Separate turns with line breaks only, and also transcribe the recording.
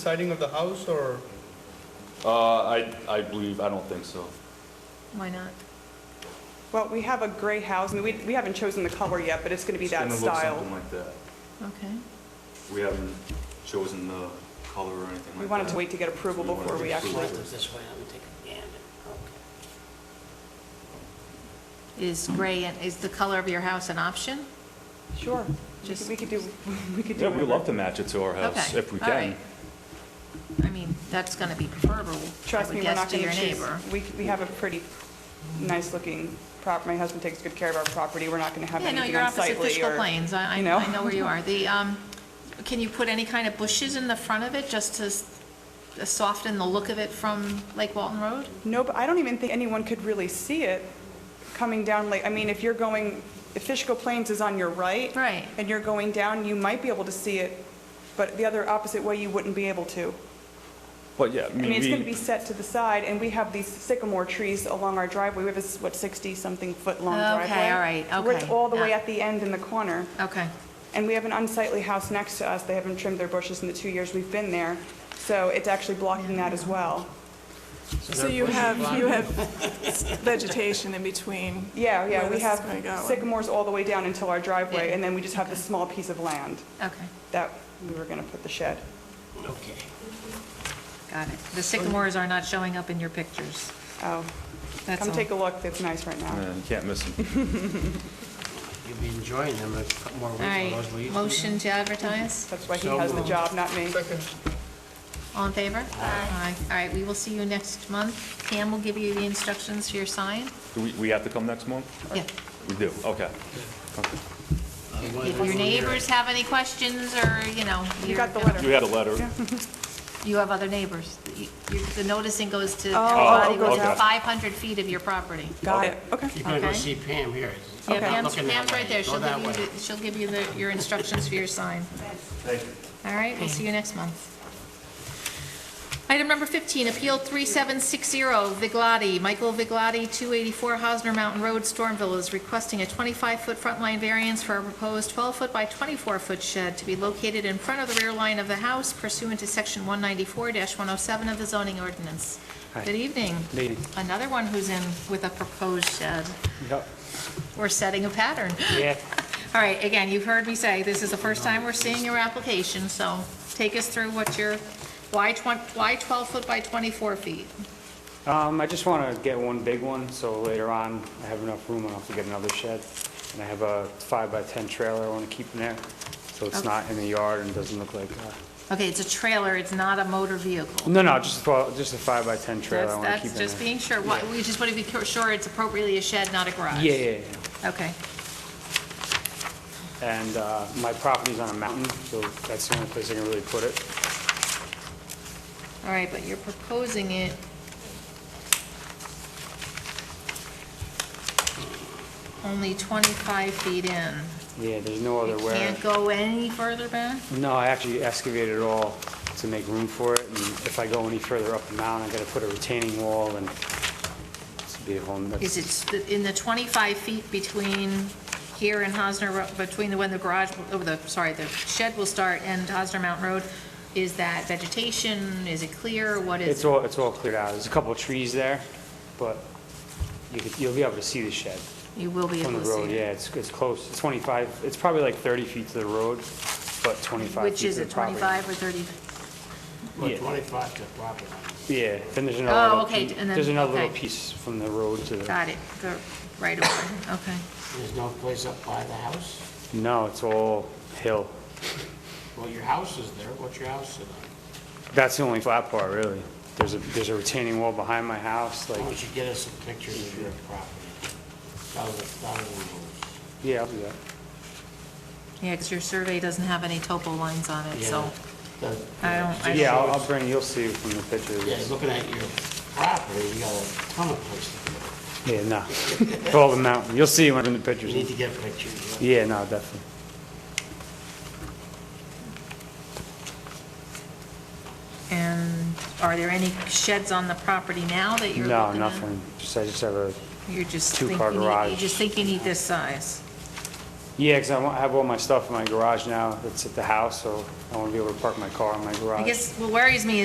siding of the house or?
Uh, I, I believe, I don't think so.
Why not?
Well, we have a gray house, and we, we haven't chosen the color yet, but it's going to be
It's
that
gonna look
style.
Something like that.
Okay.
We haven't chosen the color or anything like that.
We wanted to wait to get approval
We wanted
before
to
we
get
actually,
approval.
this way, I'm taking, yeah, okay.
Is gray, and is the color of your house an option?
sure, we could-
Just-
we could do, we could do.
Yeah, we
whatever.
love to match it to our house
Okay,
if we
all
can.
right. I mean, that's going to be preferable, I
Trust me,
would
we're
guess,
not
to
going
your
to choose.
neighbor.
We, we have a pretty nice-looking prop, my husband takes good care of our property, we're not going to have
Yeah, no,
anything
you're opposite
unsightly
Fishkill
or.
Plains, I, I
you know.
I know where you are. The, um, can you put any kind of bushes in the front of it, just to s- to soften the look of it from Lake Walton Road?
No, but I don't even think anyone could really see it coming down, like, I mean, if you're going, if Fishkill Plains is on your right.
Right.
And you're going down, you might be able to see it, but the other opposite way, you wouldn't be able to.
But yeah, I
I mean, it's going to be
mean,
set to the side, and we have these sycamore trees along our driveway. We have this, what, 60-something foot-long driveway?
Okay, all right,
So We're
okay,
all the way
yeah.
at the end in the corner,
Okay,
and we have an unsightly house next to us. They haven't trimmed their bushes in the two years we've been there, so it's actually blocking that as well.
So you have, you have vegetation in between.
Yeah, yeah,
where
we
this is
have
gonna go.
sycamores all the way down until our driveway,
Yeah.
and then we just have this small piece of land
okay,
that we were going to put the shed.
Okay.
got it. The sycamores are not showing up in your pictures,
Oh,
that's all.
come take a look, it's nice right now.
yeah, you can't miss them.
You'll be enjoying them, a couple more
All
weeks of those
right,
leaves.
motion to advertise,
That's why he
So
has the
moved.
job, not me.
Second.
all in favor? Aye. All right, we will see you next month. Pam will give you the instructions for your sign.
Do we, we have to come next month?
Yeah.
We do, okay.
Otherwise,
If your
we won't hear Uh, it.
neighbors have any questions, or, you know,
You
you're
got the
gonna-
letter.
You had a letter.
You have other neighbors. You- you- The noticing goes to
Oh,
everybody
goes
within
out.
500 feet of your property.
Got it, okay.
You're gonna go
Okay.
see Pam here.
Yeah,
Not
Pam's,
looking that
Pam's right
way.
there.
Go
She'll
that
give you,
way.
the- she'll give you the- your instructions for your sign.
Thank you.
All right, we'll see you next month. Item number 15, Appeal 3760, Viglotti, Michael Viglotti, 284 Hosner Mountain Road, Stormville, is requesting a 25-foot front line variance for a proposed 12-foot by 24-foot shed to be located in front of the rear line of the house pursuant to Section 194-107 of the zoning ordinance. Good evening.
Lady.
Another one who's in with a proposed shed.
Yep.
We're setting a pattern.
Yeah,
All right, again, you've heard me say, this is the first time we're seeing your application, so take us through what your, why 20, why 12 foot by 24 feet?
um, I just want to get one big one, so later on, I have enough room, I don't have to get another shed. And I have a five by 10 trailer I want to keep in there, so it's
Okay.
not in the yard and doesn't look like, uh,
Okay, it's a trailer, it's not a motor vehicle.
no, no, just a, fo- just a five by 10 trailer I
That's,
want to keep in
that's
there.
just being sure, Why- we just want to be cur- sure it's appropriately a shed, not a garage.
Yeah, yeah, yeah.
Okay,
And uh, my property's on a mountain, so that's the only place I can really put it.
all right, but you're proposing it, only 25 feet in.
Yeah, there's no other
You
Oh, where.
can't go any further back?
No, I actually excavated it all to make room for it, and if I go any further up the mountain, I gotta put a retaining wall, and it's a beautiful, and
Is
that's,
it st- in the 25 feet between here and Hosner, Ro- between the, when the garage, oh, the, sorry, the shed will start and Hosner Mountain Road? Is that vegetation? Is it clear? What
it's
is?
all, it's all cleared out. There's a couple of trees there, but you could, you'll be able to see the shed
You will be
from
able
the
to see.
road. Yeah, it's, it's close, it's 25, it's probably like 30 feet to the road, but 25
Which
feet
is
to the
it,
property.
25 or 30?
Well,
Yeah.
25 to property line.
Yeah, then there's
Oh,
another little,
okay,
pie-
and then-
there's another little
okay.
piece from the road to the,
Got it, the right away, okay.
There's no place up by the house?
no, it's all hill.
Well, your house is there, what's your house sit on?
That's the only flat part, really. There's a, there's a retaining wall behind my house,
Why
like,
don't you get us some pictures of your property? That was, that was,
yeah, I'll do that.
Yeah, because your survey doesn't have any topo lines on it, so.
yeah. the-
I don't- I
Yeah, I'll, I'll bring, you'll see from the
Yeah,
pictures.
looking at your property, you got a ton of places to go.
Yeah, no, all the mountain, you'll see when in
You
the
need
pictures.
to get pictures. yeah.
Yeah, no, definitely.
And are there any sheds on the property now that you're looking
No,
at?
nothing, just, I just have a,
You're just
Two-car
thinking, you
garage.
just think you need this size.
Yeah, because I wa- I have all my stuff in my garage now that's at the house, so I want to be able to park my car in my garage.
I guess what worries me